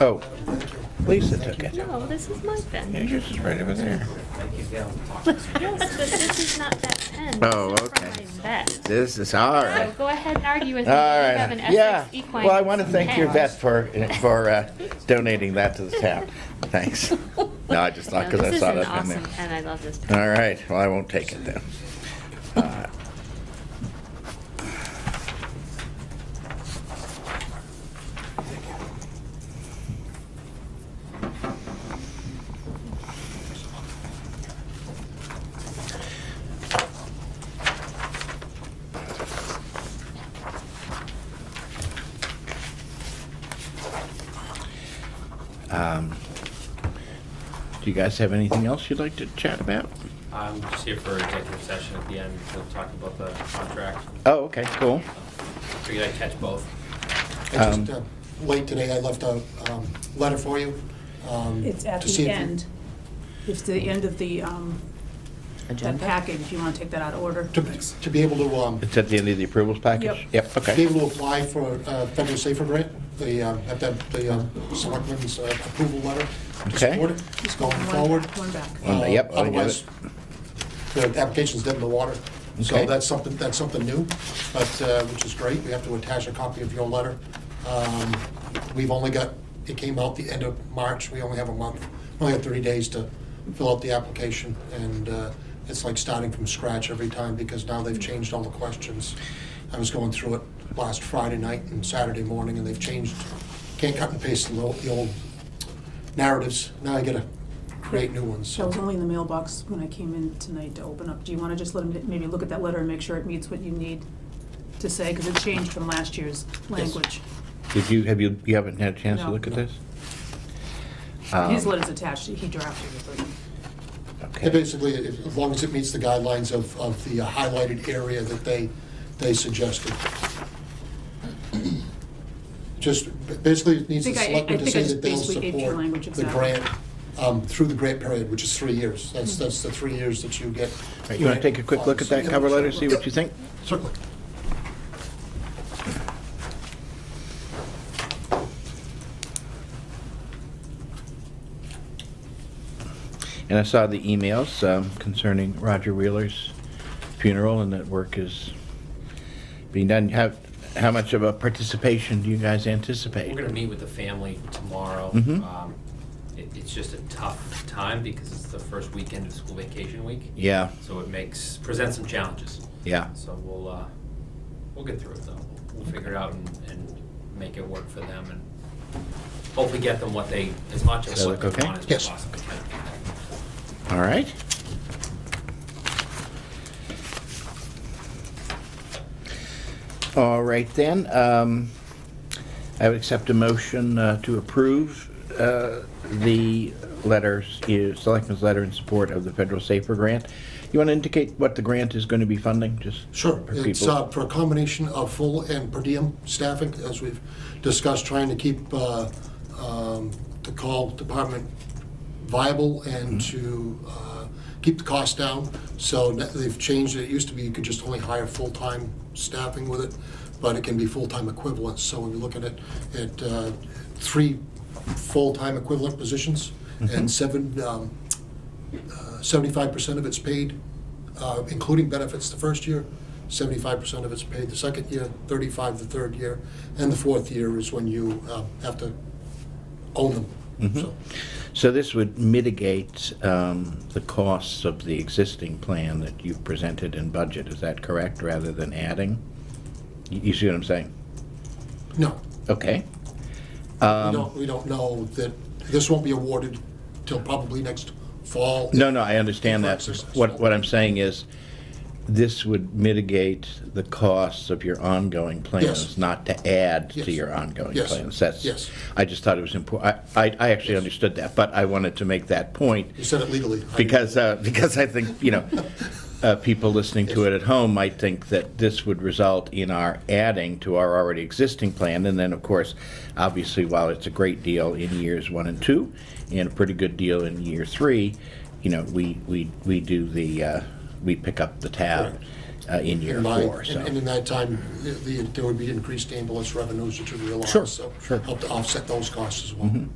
Oh, Lisa took it. No, this is my pen. Yours is right over there. Yes, but this is not that pen. Oh, This is from okay. my vet. This is, all So right. go ahead and argue with me. All You have an right, yeah. Essex equine. Well, I want to thank your pen. vet for, for uh, donating that to the town. Thanks. No, I just thought, No, because I saw This that is an in there. awesome pen. I love this pen. All right, well, I won't take it then. Uh, um, Do you guys have anything else you'd like to chat about? I'm Um, just here for executive session at the end to talk about the contract. Oh, okay, cool. Figured I'd catch both. I Um, just, uh, late today, I left a um, letter for you. um, It's at to see the if you- end. It's the end of the, um, that package. You want to take that out of order? To to be able to, um, It's at the end of the approvals package? Yep. to be okay. able to apply for a federal safer grant, the, uh, have that, the um, selectmen's uh, approval letter. to Okay. support it. It's going One- forward. One back. One- Uh, yep, I got it. Otherwise, the application's dead in the water. Okay. So that's something, that's something new, but, uh, which is great. We have to attach a copy of your letter. Um, We've only got, it came out the end of March. We only have a month, we only have 30 days to fill out the application. And uh, it's like starting from scratch every time because now they've changed all the questions. I was going through it last Friday night and Saturday morning and they've changed, can't cut and paste the old- the old narratives. Now I gotta create new ones. So I was only in the mailbox when I came in tonight to open up. Do you want to just let him, maybe look at that letter and make sure it meets what you need to say? Because it changed from last year's language. Did you, have you, you haven't had a chance to No. look at this? Um, His letter's attached. He drafted it for you. Yeah, Okay. basically, if- as long as it meets the guidelines of, of the uh, highlighted area that they, they suggested. Just, basically, it needs I the think I- selectmen to I think I say just that they'll basically gave your language support the exactly. grant, um, through the grant period, which is three years. That's, Mm-hmm. that's the three years that you get. You want to take a quick look at that cover letter, see what you think? Certainly. And I saw the emails um, concerning Roger Wheeler's funeral and that work is being done. How, how much of a participation do you guys anticipate? We're gonna meet with the family tomorrow. Mhm. Um, it- It's just a tough time because it's the first weekend of school vacation week, Yeah, so it makes, presents some challenges. yeah. So we'll, uh, we'll get through it though. We'll- We'll figure it out and, and make it work for them and hopefully get them what they, as much Does of that what look they okay? want as we Yes. possibly can. All right. All right then, um, I would accept a motion uh, to approve uh, the letters, uh, Selectmen's letter in support of the Federal Safer Grant. You want to indicate what the grant is going to be funding, just? Sure. for It's people? uh, for a combination of full and per diem staffing, as we've discussed, trying to keep uh, um, the call department viable and Mm-hmm. to uh, keep the cost down. So that- they've changed it. It used to be you could just only hire full-time staffing with it, but it can be full-time equivalents. So when we look at it, at uh, three full-time equivalent positions Mm-hmm. and seven um, seventy-five percent of it's paid, uh, including benefits the first year, seventy-five percent of it's paid the second year, thirty-five the third year, and the fourth year is when you uh, have to own them. Mm-hmm. So, So this would mitigate um, the costs of the existing plan that you've presented in budget, is that correct, rather than adding? You- You see what I'm saying? No, Okay. we Um, don't, we don't know that, this won't be awarded till probably next fall. No, no, I understand that. Different exercise. What, what I'm saying is, this would mitigate the costs of your ongoing plans, not to add Yes. to your ongoing Yes. plans. That's- Yes. I just thought it was important, I, I actually understood that, but I wanted to make that point, You said it legally. I- because, uh, because I think, you know, uh, people listening to it at home might think that this would result in our adding to our already existing plan. And then, of course, obviously, while it's a great deal in years one and two, and a pretty good deal in year three, you know, we, we, we do the, uh, we pick up the tab. uh, in year in mind. four, so. And- And in that time, the- the- there would be increased ambulance revenues that you realize. Sure, Mm-hmm. So sure. help to offset those costs as well.